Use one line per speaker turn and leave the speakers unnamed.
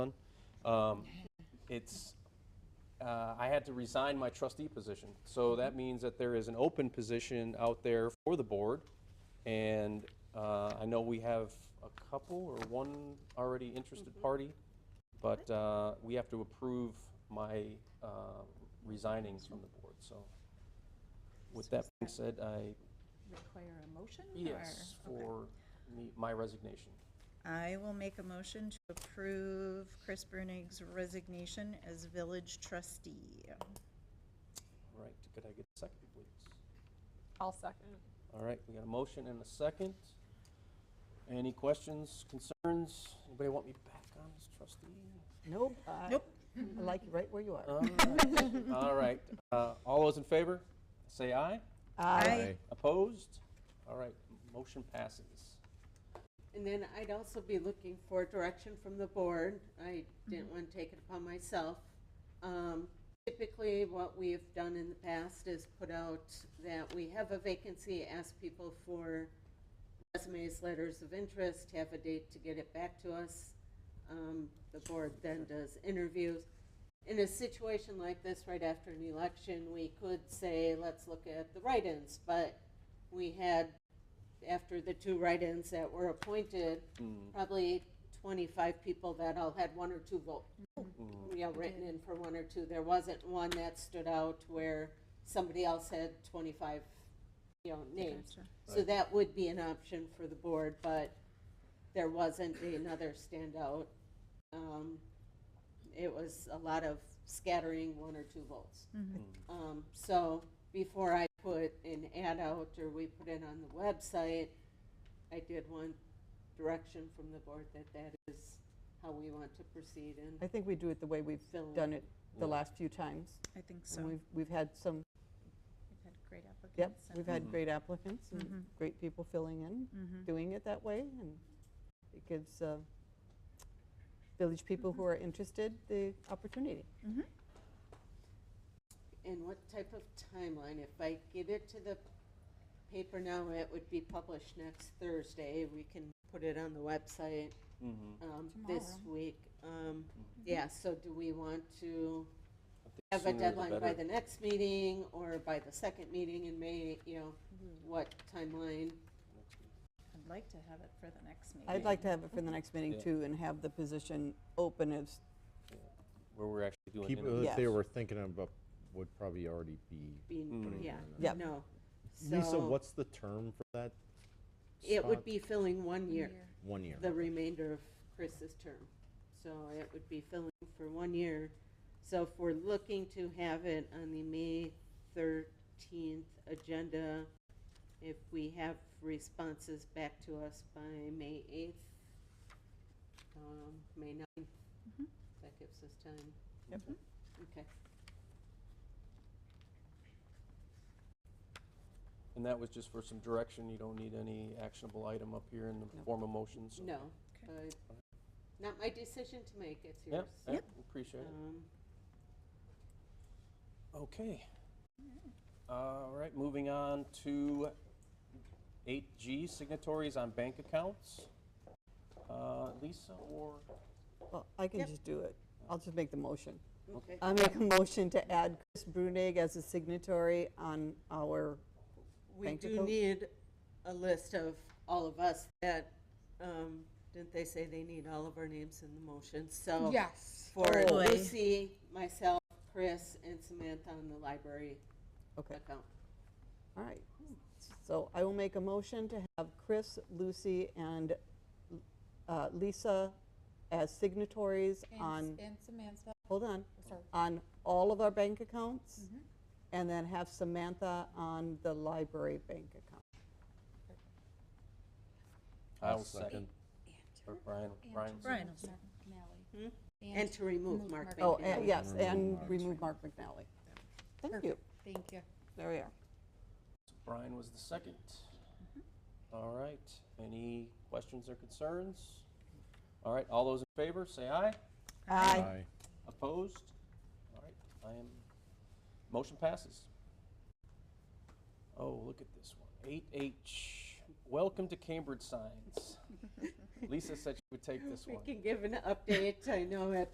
Um, It's, uh, I had to resign my trustee position. So that means that there is an open position out there for the board. And uh, I know we have a couple or one already interested party, but uh, we have to approve my uh, resigning from the board, so. With that being said, I,
require a motion? or-
yes,
okay.
for me- my resignation.
I will make a motion to approve Chris Brunig's resignation as village trustee.
All right, could I get a second, please?
I'll second.
All right, we got a motion and a second. Any questions, concerns? Anybody want me back on as trustee?
Nope. I-
Nope.
I like you right where you are. Uh,
All right. All right, uh, all those in favor, say aye.
I
Aye.
Opposed? All right, motion passes.
And then I'd also be looking for direction from the board. I didn't want to take it upon myself. Um, Typically, what we have done in the past is put out that we have a vacancy, ask people for resumes, letters of interest, have a date to get it back to us. Um, The board then does interviews. In a situation like this, right after an election, we could say, let's look at the write-ins, but we had after the two write-ins that were appointed,
Mm,
probably 25 people that all had one or two vote,
mm,
you know, written in for one or two. There wasn't one that stood out where somebody else had 25, you know, names.
Gotcha.
So that would be an option for the board, but there wasn't another standout. Um, It was a lot of scattering, one or two votes. Um, So before I put an ad out or we put it on the website, I did want direction from the board that that is how we want to proceed
I
and
think we do it the way we've
Fill
done it
Yeah.
the last few times.
I think so.
And
We've
we've, we've had some,
had great applicants.
yep,
and-
we've had great applicants and great people filling in, doing it that way. And it gives uh, village people who are interested the opportunity.
and what type of timeline. If I get it to the paper now, it would be published next Thursday. We can put it on the website
Mhm.
um, this week. Um, Yeah, so do we want to
I think
have a
Mm-hmm. sooner the
deadline by
better.
the next meeting or by the second meeting in May, you know, what timeline?
I'd like to have it for the next meeting.
I'd like to have it for the next meeting
Yeah.
too and have the position open as,
Where we're actually doing.
People
interviews.
that they
Yes.
were thinking about would probably already be.
Being, Mm.
Mm.
yeah,
Yep.
no.
Lisa,
So
what's the term for that?
It would
spot?
be filling one year,
One year.
the remainder of Chris's term. So it would be filling for one year. So if we're looking to have it on the May thirteenth agenda, if we have responses back to us by May eighth, um, May ninth, that gives us time.
Yep.
Mm-hmm.
Mm-hmm.
Okay.
And that was just for some direction. You don't need any actionable item up here in the form of motions.
No, but not my decision to make, it's yours.
Yep, yep, appreciate it.
Um,
Okay. All right, moving on to 8G signatories on bank accounts. Uh, Lisa or,
well, I can
Yep.
just do it. I'll just make the motion.
Okay.
I make a motion to add Chris Brunig as a signatory on our
We
Bank
do
account?
need a list of all of us that, um, didn't they say they need all of our names in the motion? So.
Yes.
For
Oh.
Lucy, myself, Chris, and Samantha on the library
Okay,
account.
all right. So I will make a motion to have Chris, Lucy, and uh, Lisa as signatories on,
And Samantha,
hold on,
sorry.
on all of our bank accounts, and then have Samantha on the library bank account.
I'll
I'll second.
second.
Or Brian, Brian.
Brian will
Hmm?
Malley.
And to remove Mark
Oh,
Baker.
and yes, and
Remove
remove Mark McNally. Thank you.
Thank you.
There we are.
Brian was the second. All right, any questions or concerns? All right, all those in favor, say aye.
Aye.
Opposed? All right, I am, motion passes. Oh, look at this one. Eight H, welcome to Cambridge signs. Lisa said she would take this
We
one.
can give an update. I know at